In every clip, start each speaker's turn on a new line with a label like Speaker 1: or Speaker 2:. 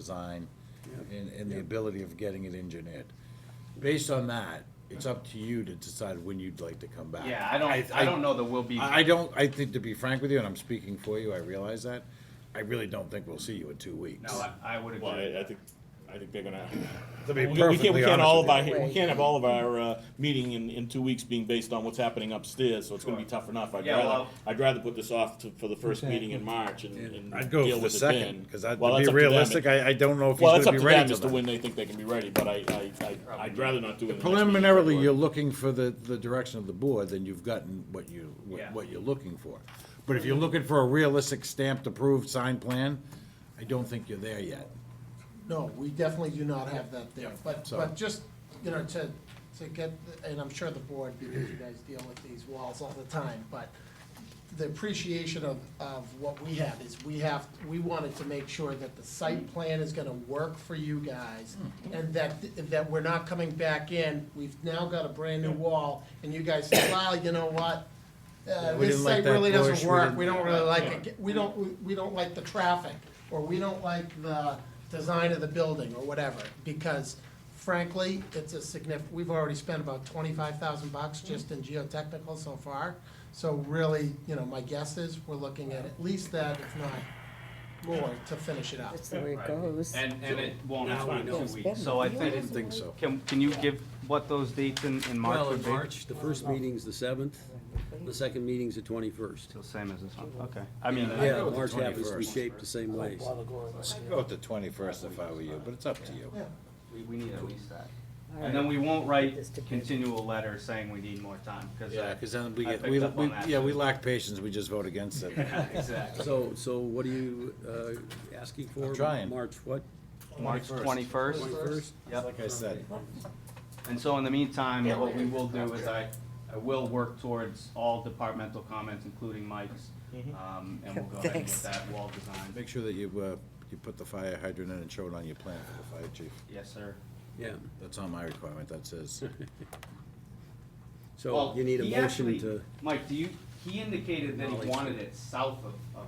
Speaker 1: design and, and the ability of getting it engineered. Based on that, it's up to you to decide when you'd like to come back.
Speaker 2: Yeah, I don't, I don't know that we'll be.
Speaker 1: I I don't, I think, to be frank with you, and I'm speaking for you, I realize that, I really don't think we'll see you in two weeks.
Speaker 2: No, I, I would
Speaker 3: Well,
Speaker 2: agree.
Speaker 3: I, I think, I think they're gonna.
Speaker 1: To be
Speaker 3: We we can't, we
Speaker 1: perfectly
Speaker 3: can't all
Speaker 1: honest
Speaker 3: of our,
Speaker 1: with you.
Speaker 3: we can't have all of our, uh, meeting in, in two weeks being based on what's happening upstairs, so it's gonna be
Speaker 2: Sure.
Speaker 3: tough enough. I'd
Speaker 2: Yeah,
Speaker 3: rather,
Speaker 2: well-
Speaker 3: I'd rather put this off to, for the first meeting in March and, and
Speaker 1: I'd go for
Speaker 3: deal
Speaker 1: the
Speaker 3: with it
Speaker 1: second,
Speaker 3: then.
Speaker 1: because I'd,
Speaker 3: Well,
Speaker 1: to
Speaker 3: that's
Speaker 1: be
Speaker 3: up to them.
Speaker 1: realistic, I, I don't know if he's
Speaker 3: Well, it's
Speaker 1: gonna
Speaker 3: up
Speaker 1: be
Speaker 3: to
Speaker 1: ready
Speaker 3: them
Speaker 1: to
Speaker 3: as to
Speaker 1: that.
Speaker 3: when they think they can be ready, but I, I, I, I'd rather not do it. in the next meeting.
Speaker 1: Preliminarily, you're looking for the, the direction of the board, then you've gotten what you, what-
Speaker 2: Yeah.
Speaker 1: what you're looking for. But if you're looking for a realistic stamped approved signed plan, I don't think you're there yet.
Speaker 4: No, we definitely do not have that there, but,
Speaker 1: so-
Speaker 4: but just, you know, to, to get, the- and I'm sure the board, because you guys deal with these walls all the time, but the appreciation of, of what we have is we have, we wanted to make sure that the site plan is gonna work for you guys, and that, that we're not coming back in, we've now got a brand-new wall, and you guys say, well, you know what? Uh,
Speaker 1: We
Speaker 4: this
Speaker 1: didn't like
Speaker 4: site
Speaker 1: that
Speaker 4: really
Speaker 1: bush,
Speaker 4: doesn't
Speaker 1: we
Speaker 4: work,
Speaker 1: didn't-
Speaker 4: we don't really like it, we don't, we- we don't like the traffic, or we don't like the design of the building, or whatever, because frankly, it's a significant, we've already spent about twenty-five thousand bucks just in geotechnical so far, so really, you know, my guess is, we're looking at at least that, if not more, to finish it up.
Speaker 5: That's the way it
Speaker 2: Right.
Speaker 5: goes.
Speaker 2: And, and it won't
Speaker 3: That's
Speaker 2: happen in
Speaker 3: fine.
Speaker 2: two
Speaker 5: It's
Speaker 2: weeks,
Speaker 5: better.
Speaker 2: so I
Speaker 5: Yeah.
Speaker 1: I
Speaker 2: think,
Speaker 1: didn't think so.
Speaker 6: Can, can you give what those dates in, in March
Speaker 7: Well,
Speaker 6: would
Speaker 7: in
Speaker 6: be?
Speaker 7: March, the first meeting's the seventh, the second meeting's the twenty-first.
Speaker 6: So same as this one, okay. I mean,
Speaker 7: Yeah,
Speaker 1: go with the
Speaker 7: March happens to be
Speaker 1: 21st.
Speaker 7: shaped the same ways.
Speaker 1: I'd go with the twenty-first if I were you, but it's up to you.
Speaker 4: Yeah.
Speaker 6: we, we need at least that.
Speaker 5: All
Speaker 6: And
Speaker 5: right.
Speaker 6: then we won't write
Speaker 5: Just to-
Speaker 6: continual letters saying we need more time, uh, because.
Speaker 1: Yeah, because then we
Speaker 6: I
Speaker 1: get,
Speaker 6: picked
Speaker 1: we,
Speaker 6: up on
Speaker 1: we-
Speaker 6: that,
Speaker 1: yeah, we
Speaker 6: too.
Speaker 1: lack patience, we just vote against it.
Speaker 6: Exactly.
Speaker 7: So, so what are you, uh, asking for?
Speaker 1: I'm trying.
Speaker 7: March what?
Speaker 6: March twenty-first,
Speaker 7: Twenty-first?
Speaker 6: yep.
Speaker 1: Like I said,
Speaker 6: And so in the meantime, what we will do is I, I will work towards all departmental comments, including Mike's. Um, and we'll go ahead and get
Speaker 5: Mm-hmm. Thanks.
Speaker 6: that wall designed.
Speaker 1: make sure that you, uh, you put the fire hydrant in and show it on your plan for the fire chief.
Speaker 6: Yes, sir.
Speaker 7: Yeah,
Speaker 1: That's not my requirement, that's his.
Speaker 7: so
Speaker 6: Well,
Speaker 7: you need
Speaker 6: he
Speaker 7: a motion
Speaker 6: actually-
Speaker 7: to,
Speaker 6: Mike, do you, he indicated that he
Speaker 7: Knowledge.
Speaker 6: wanted it south of, of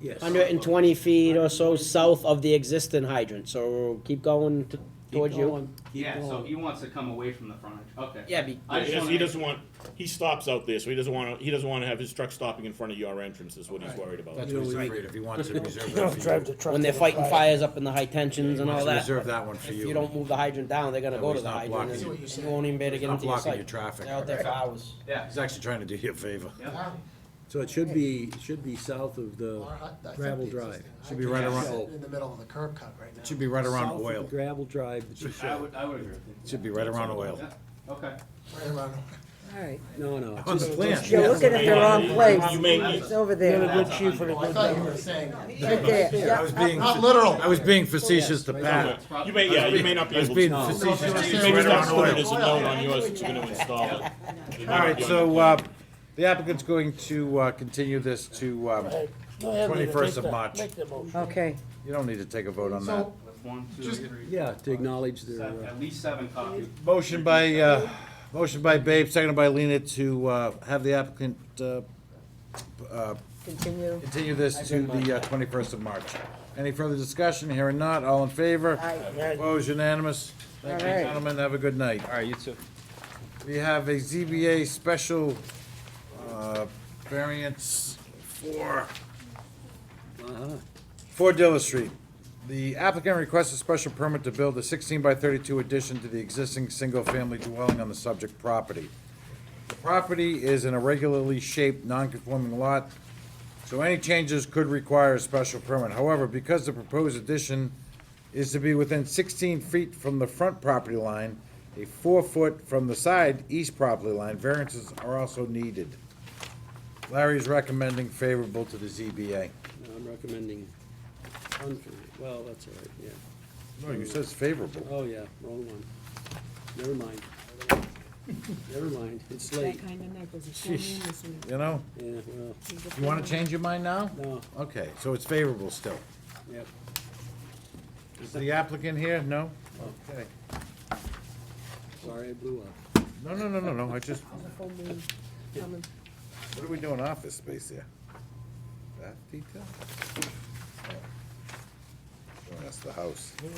Speaker 7: yes.
Speaker 8: Hundred and twenty feet or so south of the existing hydrant, so keep going t-
Speaker 7: Keep
Speaker 8: towards you.
Speaker 7: going, keep
Speaker 6: Yeah, so
Speaker 7: going.
Speaker 6: he wants to come away from the frontage, okay.
Speaker 8: Yeah, be-
Speaker 6: I
Speaker 3: He
Speaker 6: just
Speaker 3: doesn't- He
Speaker 6: wanna,
Speaker 3: doesn't want, he stops out there, so he doesn't wanna, he doesn't wanna have his truck stopping in front of your entrance is what he's worried about.
Speaker 1: That's what he's
Speaker 7: Right.
Speaker 1: afraid of, he wants to reserve that for you.
Speaker 8: When they're fighting fires up in the high tensions
Speaker 1: He
Speaker 8: and
Speaker 1: wants
Speaker 8: all
Speaker 1: to Reserve
Speaker 8: that,
Speaker 1: that one for
Speaker 8: if
Speaker 1: you.
Speaker 8: you don't move the hydrant down, they're gonna
Speaker 1: That
Speaker 8: go
Speaker 1: way
Speaker 8: to
Speaker 1: he's
Speaker 8: the
Speaker 1: not
Speaker 8: hydrant.
Speaker 1: blocking
Speaker 8: and
Speaker 4: you.
Speaker 8: You won't even be able to
Speaker 1: He's
Speaker 8: get
Speaker 1: not
Speaker 8: into your
Speaker 1: blocking
Speaker 8: site.
Speaker 1: your traffic.
Speaker 8: They're out there for hours.
Speaker 6: yeah,
Speaker 1: He's actually trying to do you a favor.
Speaker 6: yeah,
Speaker 7: So it should be, it should be south of the
Speaker 4: Our hut- I think
Speaker 7: gravel
Speaker 4: the
Speaker 7: drive.
Speaker 4: existing
Speaker 1: Should be right
Speaker 4: hydrant is
Speaker 1: around-
Speaker 4: In the middle of the curb cut right now.
Speaker 1: It should be right around
Speaker 7: South of the
Speaker 1: oil.
Speaker 7: Gravel drive that you
Speaker 6: I
Speaker 7: showed.
Speaker 6: would, I would agree with you.
Speaker 1: It should be right around oil.
Speaker 6: Yeah, okay.
Speaker 4: Right around,
Speaker 5: All right.
Speaker 7: No, no.
Speaker 1: On the
Speaker 7: just-
Speaker 1: plan.
Speaker 7: just-
Speaker 5: You're looking at the wrong
Speaker 3: You
Speaker 5: place.
Speaker 3: may,
Speaker 5: It's over there.
Speaker 6: That's a hundred.
Speaker 4: I thought you were saying,
Speaker 5: Right there.
Speaker 1: I was being,
Speaker 4: not literal.
Speaker 1: I was being facetious to Pat.
Speaker 3: you may, yeah, you may not be
Speaker 1: I was
Speaker 3: able
Speaker 1: being
Speaker 3: to.
Speaker 1: facetious.
Speaker 4: It's
Speaker 3: Maybe
Speaker 1: Right
Speaker 3: stop
Speaker 1: around
Speaker 3: putting it
Speaker 1: oil.
Speaker 3: as a note on yours that you're gonna install it.
Speaker 1: All right, so, uh, the applicant's going to, uh, continue this to, um, twenty-first of March.
Speaker 5: Okay.
Speaker 1: You don't need to take a vote on that.
Speaker 4: so,
Speaker 6: One, two,
Speaker 4: Just-
Speaker 6: three,
Speaker 7: Yeah, to acknowledge their.
Speaker 6: seven,
Speaker 7: uh,
Speaker 6: at least seven copies.
Speaker 1: Motion by, uh, motion by Babe, seconded by Lena to, uh, have the applicant, uh, uh,
Speaker 5: Continue.
Speaker 1: Continue this to the uh, twenty-first of March. Any further discussion? Hearing not, all in favor?
Speaker 5: Aye.
Speaker 1: Opposed, unanimous. Thank you,
Speaker 5: All right.
Speaker 1: gentlemen, have a good night.
Speaker 6: All right, you too.
Speaker 1: We have a ZBA special uh, variance for, for Dilla Street. The applicant requests a special permit to build a sixteen by thirty-two addition to the existing single-family dwelling on the subject property. The property is an irregularly shaped, non-conforming lot, so any changes could require a special permit. However, because the proposed addition is to be within sixteen feet from the front property line, a four-foot from the side east property line, variances are also needed. Larry is recommending favorable to the ZBA.
Speaker 7: I'm recommending, unfavorable. well, that's all right, yeah.
Speaker 1: No, you says favorable.
Speaker 7: Oh, yeah, wrong one. Never mind. Never mind, it's
Speaker 9: That
Speaker 7: late.
Speaker 9: kind of night, there's a storm in this week.
Speaker 1: You know,
Speaker 7: Yeah, well,
Speaker 1: you wanna change your mind now?
Speaker 7: no,
Speaker 1: Okay, so it's favorable still.
Speaker 7: yep.
Speaker 1: Is the applicant here? No? Okay.
Speaker 7: Sorry, I blew up.
Speaker 1: No, no, no, no, no, I just,
Speaker 9: Full moon coming.
Speaker 1: what are we doing office space here? That detail? Oh. Sorry. That's the house.